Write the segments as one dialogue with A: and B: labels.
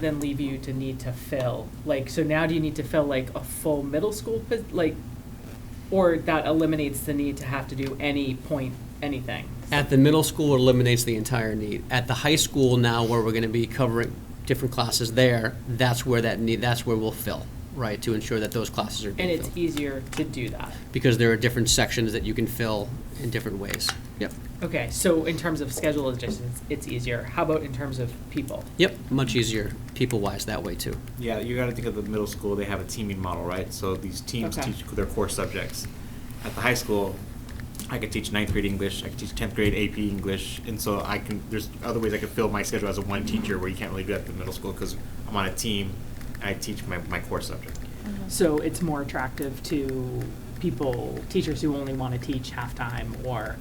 A: then leave you to need to fill? Like, so now do you need to fill like a full middle school, pos- like, or that eliminates the need to have to do any point, anything?
B: At the middle school, it eliminates the entire need. At the high school now, where we're gonna be covering different classes there, that's where that need, that's where we'll fill, right, to ensure that those classes are
A: And
B: being
A: it's
B: filled.
A: easier to do that.
B: Because there are different sections that you can fill in different ways. Yep,
A: Okay, so in terms of schedule adjustments, it's easier. How about in terms of people?
B: yep, much easier people-wise that way too.
C: Yeah, you gotta think of the middle school, they have a teaming model, right? So these teams
A: Okay.
C: teach their core subjects. At the high school, I could teach ninth grade English, I could teach tenth grade AP English, and so I can, there's other ways I could fill my schedule as a one teacher where you can't really do that at the middle school, cause I'm on a team, and I teach my, my core subject.
A: So it's more attractive to people, teachers who only want to teach halftime or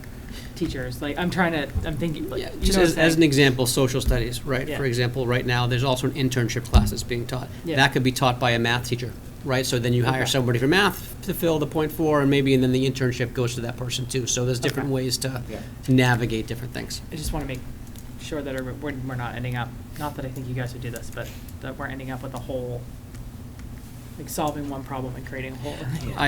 A: teachers, like, I'm trying to, I'm thinking, like,
B: Yeah,
A: you
B: just
A: know what
B: as,
A: I'm
B: as an
A: saying?
B: example, social studies, right?
A: Yeah.
B: For example, right now, there's also an internship class that's being taught.
A: Yeah.
B: That could be taught by a math teacher, right? So then you hire
A: Okay.
B: somebody for math to fill the point four, and maybe, and then the internship goes to that person too. So there's different
A: Okay.
B: ways to
C: Yeah.
B: navigate different things.
A: I just want to make sure that we're, we're we're not ending up, not that I think you guys would do this, but that we're ending up with a whole, like solving one problem and creating a whole.
B: I,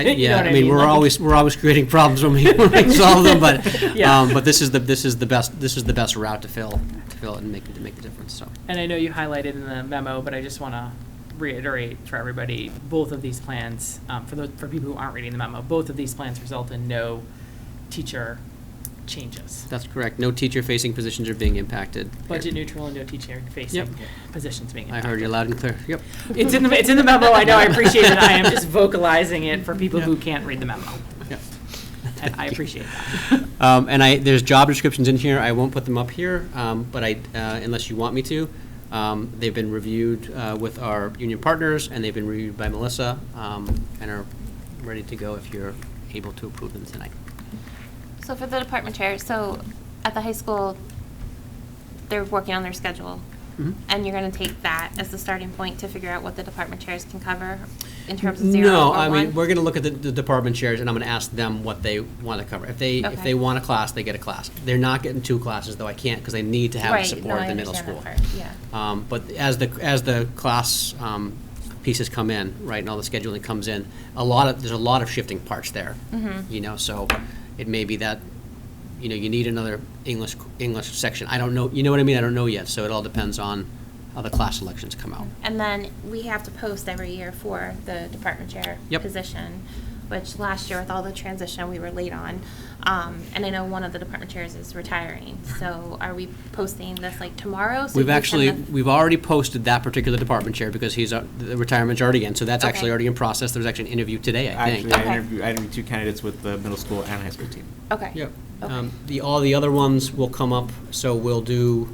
A: You know
B: yeah,
A: what
B: I mean, we're
A: Like,
B: always, we're always creating problems when we when we solve them, but,
A: Yeah.
B: um, but this is the, this is the best, this is the best route to fill, to fill it and make, to make the difference, so.
A: And I know you highlighted in the memo, but I just want to reiterate for everybody, both of these plans, um, for the, for people who aren't reading the memo, both of these plans result in no teacher changes.
B: That's correct. No teacher-facing positions are being impacted. here.
A: Budget neutral and no teacher facing
B: Yep.
A: positions being
B: I
A: impacted.
B: heard you loud and clear. Yep.
A: It's in the, it's in the memo, I know, I appreciate it, I am just vocalizing it for people who can't read the memo.
B: Yep.
A: I, I appreciate that.
B: Um, and I, there's job descriptions in here. I won't put them up here, um, but I, uh, unless you want me to. Um, they've been reviewed, uh, with our union partners and they've been reviewed by Melissa, um, and are ready to go if you're able to approve them tonight.
D: So for the department chair, so at the high school, they're working on their schedule.
B: Mhm.
D: And you're gonna take that as the starting point to figure out what the department chairs can cover in terms of zero
B: No,
D: or
B: I mean,
D: one?
B: we're gonna look at the, the department chairs, and I'm gonna ask them what they wanna cover. If they, if
D: Okay.
B: they want a class, they get a class. They're not getting two classes, though I can't, because they need to have the
D: Right,
B: support
D: no,
B: of
D: I
B: the middle school.
D: understand that part, yeah.
B: Um, but as the, as the class, um, pieces come in, right, and all the scheduling comes in, a lot of, there's a lot of shifting parts there.
D: Mm-hmm.
B: You know, so it may be that, you know, you need another English, English section. I don't know, you know what I mean? I don't know yet, so it all depends on how the class elections come out.
D: And then we have to post every year for the department chair
B: Yep.
D: position, which last year with all the transition, we were late on. Um, and I know one of the department chairs is retiring, so are we posting this like tomorrow? So
B: We've
D: we can
B: actually,
D: send the-
B: we've already posted that particular department chair because he's, uh, the retirement's already in, so that's
D: Okay.
B: actually already in process. There's actually an interview today, I think.
C: Actually, I
D: Okay.
C: interviewed, I interviewed two candidates with the middle school and high school team.
D: Okay.
B: Yep.
D: Okay.
B: Um, The, all the other ones will come up, so we'll do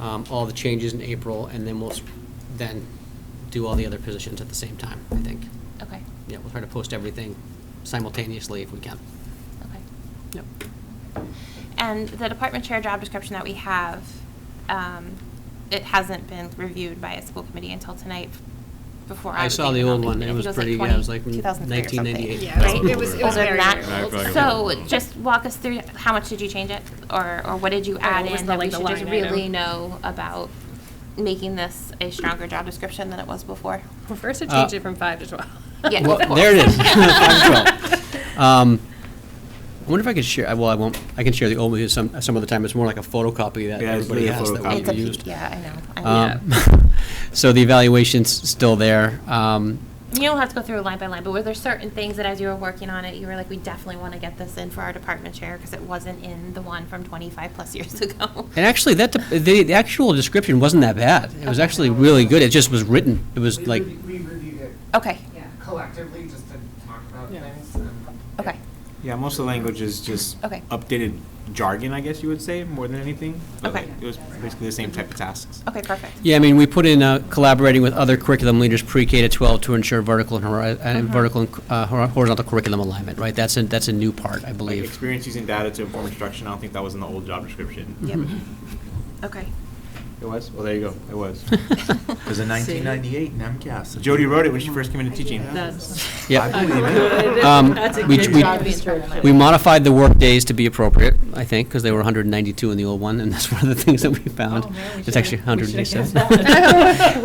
B: um, all the changes in April, and then we'll s- then do all the other positions at the same time, I think.
D: Okay,
B: Yeah, we'll try to post everything simultaneously if we can.
D: okay.
B: Yep.
D: And the department chair job description that we have, um, it hasn't been reviewed by a school committee until tonight before I
B: I
D: was
B: saw the
D: even on
B: old one.
D: committee.
B: It
D: I
B: was
D: think
B: pretty- yeah, it
D: 20
B: was like
D: 2003 or something.
B: 1998.
E: Yeah, it was- it was, it was
D: Older than
E: very
D: that.
E: old.
C: Yeah, probably older.
D: So just walk us through, how much did you change it? Or, or what did you add
E: what was
D: in
E: the,
D: that we
E: like, the
D: should just
E: line item?
D: really know about making this a stronger job description than it was before?
E: Well, First, it
B: Uh,
E: changed it from five to 12.
D: Yeah,
B: Well,
D: of course.
B: there it is. Five as well. Um, I wonder if I could share, well, I won't, I can share the old one some, some other time. It's more like a photocopy that
C: Yeah, it's
B: everybody
C: really a
B: has that
C: photocopy.
D: It's a,
B: we've
C: It's
B: used.
D: P- yeah, I know. I know.
B: Um, So the evaluation's still there. Um,
D: You don't have to go through line by line, but were there certain things that as you were working on it, you were like, we definitely want to get this in for our department chair because it wasn't in the one from 25 plus years ago?
B: And actually, that, dep- the, the actual description wasn't that bad. It was actually really good. It just was written, it was
F: We
B: like,
F: reviewed- We reviewed it
D: Okay,
F: collectively, just to talk about
A: Yeah.
F: things. and-
D: okay,
C: Yeah, most of the language is just
D: Okay.
C: updated jargon, I guess you would say, more than anything. But,
D: Okay.
C: like, It was basically the same type of tasks.
D: okay, perfect.
B: yeah, I mean, we put in uh, collaborating with other curriculum leaders pre-K to 12 to ensure vertical and hori- and vertical and uh, hor- horizontal curriculum alignment, right? That's a, that's a new part, I
C: Like
B: believe.
C: experience using data to inform instruction, I don't think that was in the old job description.
D: Yep.
B: Mm-hmm.
D: Okay.
C: It was? Well, there you go, it was.
G: It was a 1998 NEMCAS.
C: Jody wrote it when she first came into teaching.
A: That's
G: I
B: Yeah.
G: believe it.
B: Um,
A: that's a
B: we-
A: good
B: we-
A: job description.
B: We modified the work days to be appropriate, I think, because they were 192 in the old one, and that's one of the things that we found.
A: Oh, man, we
B: It's
A: should've-
B: actually
A: we should've
B: 187.
A: guessed that.